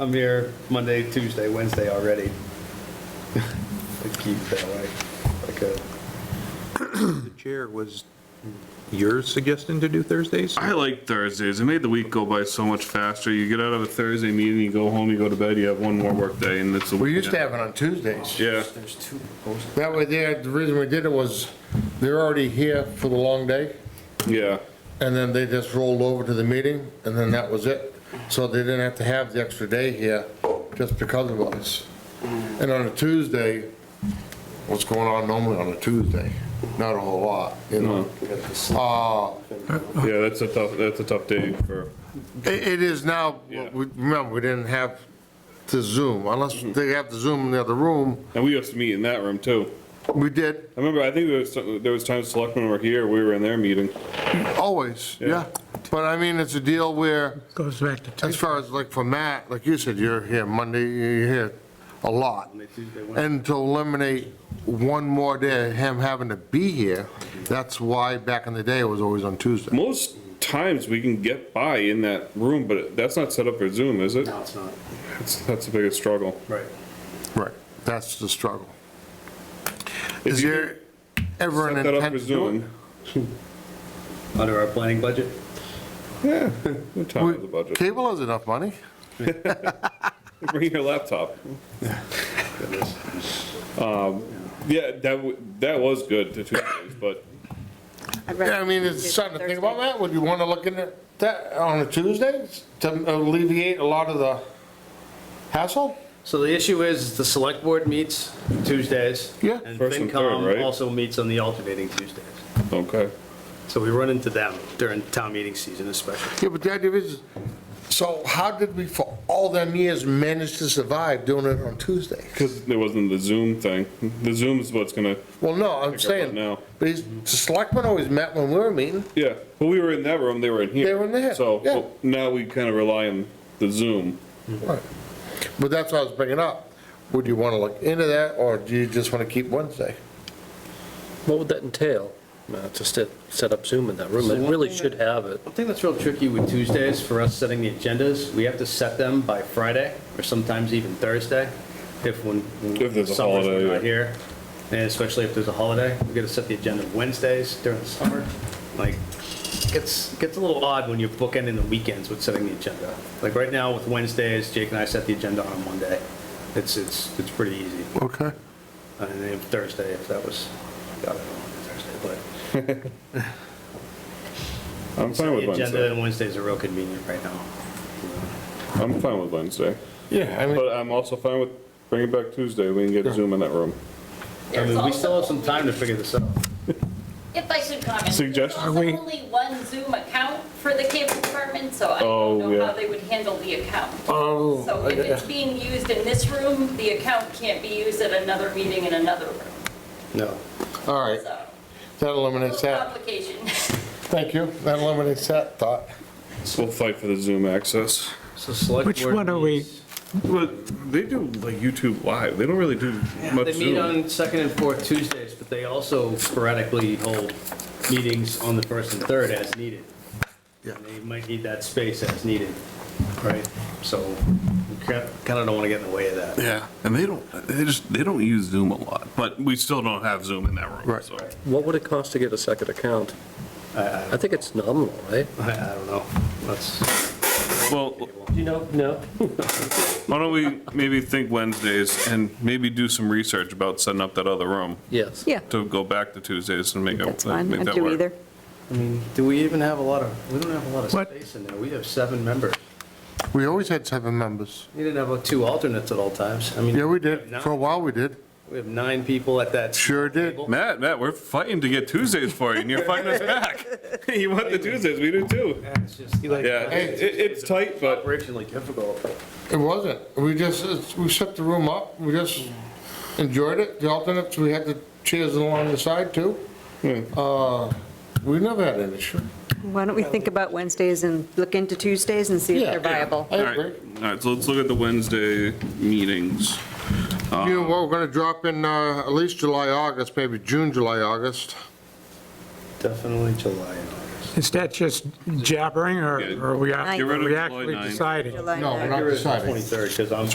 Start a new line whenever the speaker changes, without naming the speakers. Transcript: I'm here Monday, Tuesday, Wednesday already. I keep it that way, like a.
The chair was your suggestion to do Thursdays?
I like Thursdays. It made the week go by so much faster. You get out of a Thursday meeting, you go home, you go to bed, you have one more work day and it's a
We used to
weekend.
have it on Tuesdays.
Yeah,
There's two proposals.
That way there, the reason we did it was they're already here for the long day
yeah.
and then they just rolled over to the meeting and then that was it. So they didn't have to have the extra day here just because of us. And on a Tuesday, what's going on normally on a Tuesday? Not a whole lot, you know? Uh,
Yeah, that's a tough, that's a tough day for,
It it is now,
Yeah.
we- remember, we didn't have the Zoom, unless they have the Zoom in the other room.
and we used to meet in that room too.
We did,
I remember, I think there was, some- there was times selectmen were here, we were in their meeting.
always,
Yeah.
yeah. But I mean, it's a deal where,
Goes back to
as far as like for Matt, like you said, you're here Monday, you're here a lot.
Monday, Tuesday, Wednesday.
And to eliminate one more day, of him having to be here, that's why back in the day it was always on Tuesday.
Most times we can get by in that room, but that's not set up for Zoom, is it?
No, it's not.
That's, that's the biggest struggle.
Right.
Right. That's the struggle.
If
Is
you
there ever an
Set that up
intent
for
to do it?
Zoom.
Under our planning budget?
Yeah, we're talking about the
We-
budget.
Cable has enough money.
Bring your laptop.
Goodness.
Yeah, that, w- that was good, the Tuesdays, but
I'd rather
Yeah, I mean, it's
do
something to think about,
Thursday.
Matt. Would you want to look into that on a Tuesday to alleviate a lot of the hassle?
So the issue is, the select board meets Tuesdays.
Yeah.
And
First and third, right?
FinCom also meets on the alternating Tuesdays.
Okay.
So we run into them during town meeting season especially.
Yeah, but the idea is, so how did we for all them years manage to survive doing it on Tuesday?
Because there wasn't the Zoom thing. The Zoom is what's gonna,
Well, no, I'm
Pick up on
saying,
now.
but he's- the selectmen always met when we were meeting.
yeah, but we were in that room, they were in here.
They were in there,
So
yeah.
well, now we kind of rely on the Zoom.
But that's what I was bringing up. Would you want to look into that, or do you just want to keep Wednesday?
What would that entail? No, To set, set up Zoom in that room,
So
it
one
really
thing
should have it.
I think that's real tricky with Tuesdays for us setting the agendas. We have to set them by Friday or sometimes even Thursday if when.
If there's a
summer's
holiday,
not
yeah.
Here, and especially if there's a holiday, we gotta set the agenda Wednesdays during the summer. Like, it's, gets a little odd when you're bookending the weekends with setting the agenda. Like right now with Wednesdays, Jake and I set the agenda on a Monday. It's, it's, it's pretty easy.
Okay.
And then Thursday, if that was, God, I don't know, Thursday,
I'm
but.
fine with
the Agenda
Wednesday.
and Wednesdays are real convenient right now.
I'm fine with Wednesday.
Yeah, I mean,
But I'm also fine with bringing back Tuesday. We can get Zoom in that room.
I mean, we still have some time to figure this out.
If I should comment.
Suggestion?
There's also only one Zoom account for the cable department, so I
Oh,
don't know
yeah.
how they would handle the account.
oh,
So if it's being used in this room, the account can't be used at another meeting in another room,
No.
all right,
so.
that eliminates
Little
that.
complication.
Thank you, that eliminates that thought.
So we'll fight for the Zoom access.
So select
Which
board
one are we-
meets-
But they do like YouTube Live. They don't really do
They
much
meet
Zoom.
on second and fourth Tuesdays, but they also sporadically hold meetings on the first and third as needed.
Yeah.
They might need that space as needed, right? So we kind of don't want to get in the way of that.
Yeah, and they don't, they just, they don't use Zoom a lot, but we still don't have Zoom in that room,
Right.
so.
What would it cost to get a second account? I think it's nominal, right?
I I don't know. That's,
Well,
You know, no.
Why don't we maybe think Wednesdays and maybe do some research about setting up that other room
Yes.
Yeah,
to go back to Tuesdays and make it,
that's fine.
make
I'd
that
do
work.
either.
I mean, do we even have a lot of, we don't have a lot of
What?
space in there. We have seven members.
We always had seven members.
We didn't have uh, two alternates at all times. I mean.
Yeah, we did, for a while we did.
We have nine people at that.
Sure did.
Matt, Matt, we're fighting to get Tuesdays for you and you're fighting us back. You want the Tuesdays, we do too.
It's just,
Yeah, it, it- it's tight, but
Operationally difficult.
It wasn't. We just, it's- we set the room up, we just enjoyed it. The alternates, we had the chairs along the side too. Uh, We never had an issue.
Why don't we think about Wednesdays and look into Tuesdays and see if
Yeah,
they're
yeah.
viable?
I
all right, all
agree.
right, so let's look at the Wednesday meetings.
You know, what, we're gonna drop in uh, at least July, August, maybe June, July, August.
Definitely July and August.
Is that just jabbering, or
Yeah.
or are we act-
Get
are
rid of
we
July
actually
ninth.
deciding?
July
No, we're
ninth.
not deciding.
23rd, because I'm